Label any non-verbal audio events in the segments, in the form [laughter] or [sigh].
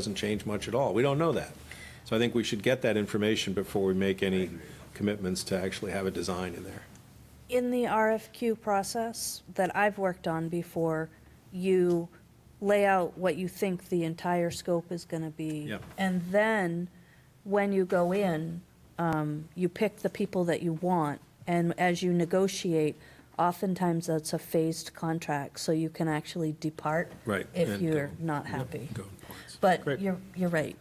doesn't change much at all. We don't know that. So I think we should get that information before we make any commitments to actually have a design in there. In the RFQ process that I've worked on before, you lay out what you think the entire scope is going to be. Yep. And then, when you go in, um, you pick the people that you want. And as you negotiate, oftentimes that's a phased contract, so you can actually depart. Right, If and you're go- not happy. Go in parts. But Great. you're, you're right.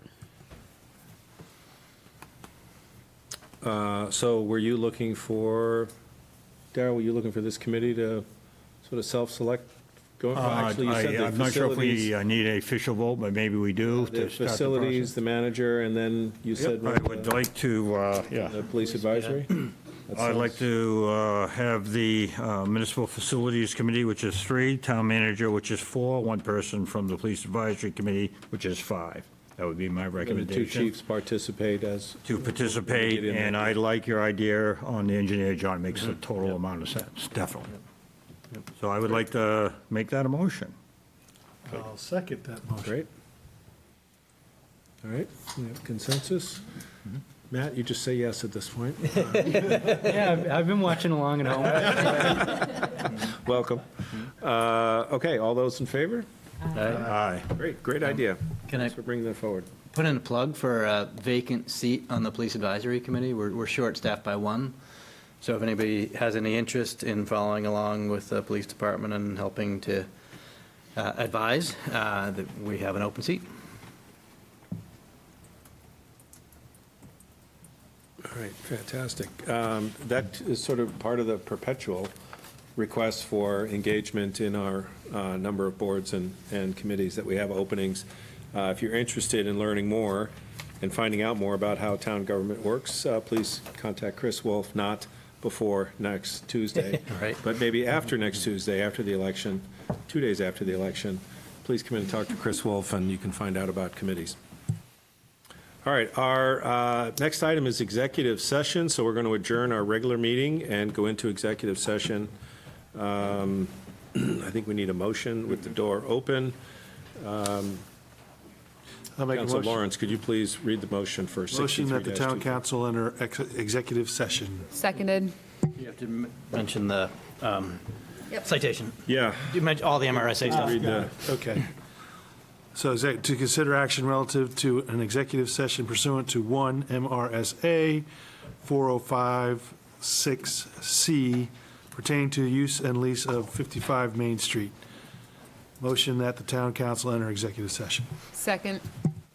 Uh, So were you looking for, Darrell, were you looking for this committee to sort of self-select? Go- Uh, Actually, you I- said the I'm not sure if we facilities, Uh, uh, need a official vote, but maybe we do. to the start the facilities, the process. manager, and then you said Yep, I would the like to, uh, yeah, the police advisory? That [clears throat] I'd like sounds- to uh, have the uh, municipal facilities committee, which is three, town manager, which is four, one person from the police advisory committee, which is five. That would be my The two recommendation. chiefs participate as, To participate, Get in there. Mm-hmm. and I like your idea on the engineer, John, It makes a total amount of sense, definitely. So I would like to make that a motion. I'll second that motion. Great. All right, we have consensus. Matt, you just say yes at this point. Yeah, I've, I've been watching along at home. [laughs] Welcome. Uh, Okay, all those in favor? Aye. Great, great idea. Can I- Thanks for bringing that forward. Put in a plug for a vacant seat on the police advisory committee. We're, we're short-staffed by one. So if anybody has any interest in following along with the police department and helping to uh, advise, uh, that we have an open seat. All right, fantastic. Um, That is sort of part of the perpetual request for engagement in our uh, number of boards and, and committees that we have openings. Uh, If you're interested in learning more and finding out more about how town government works, uh, please contact Chris Wolf, not before next Tuesday. Right. But maybe after next Tuesday, after the election, two days after the election, please come in and talk to Chris Wolf, and you can find out about committees. All right, our uh, next item is executive session, so we're going to adjourn our regular meeting and go into executive session. Um, [clears throat] I think we need a motion with the door open. I'll make a Council motion. Lawrence, could you please read the motion for 63-2? Motion that the town council enter ex- executive session. Seconded. You have to mention the um, citation. Yeah, You mentioned all the MRSA stuff. read the, Okay. So is that to consider action relative to an executive session pursuant to 1 MRSA 4056C pertaining to use and lease of 55 Main Street. Motion that the town council enter executive session. Second.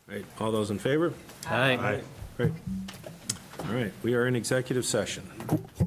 right, all those in favor? Aye. Great. All right, we are in executive session.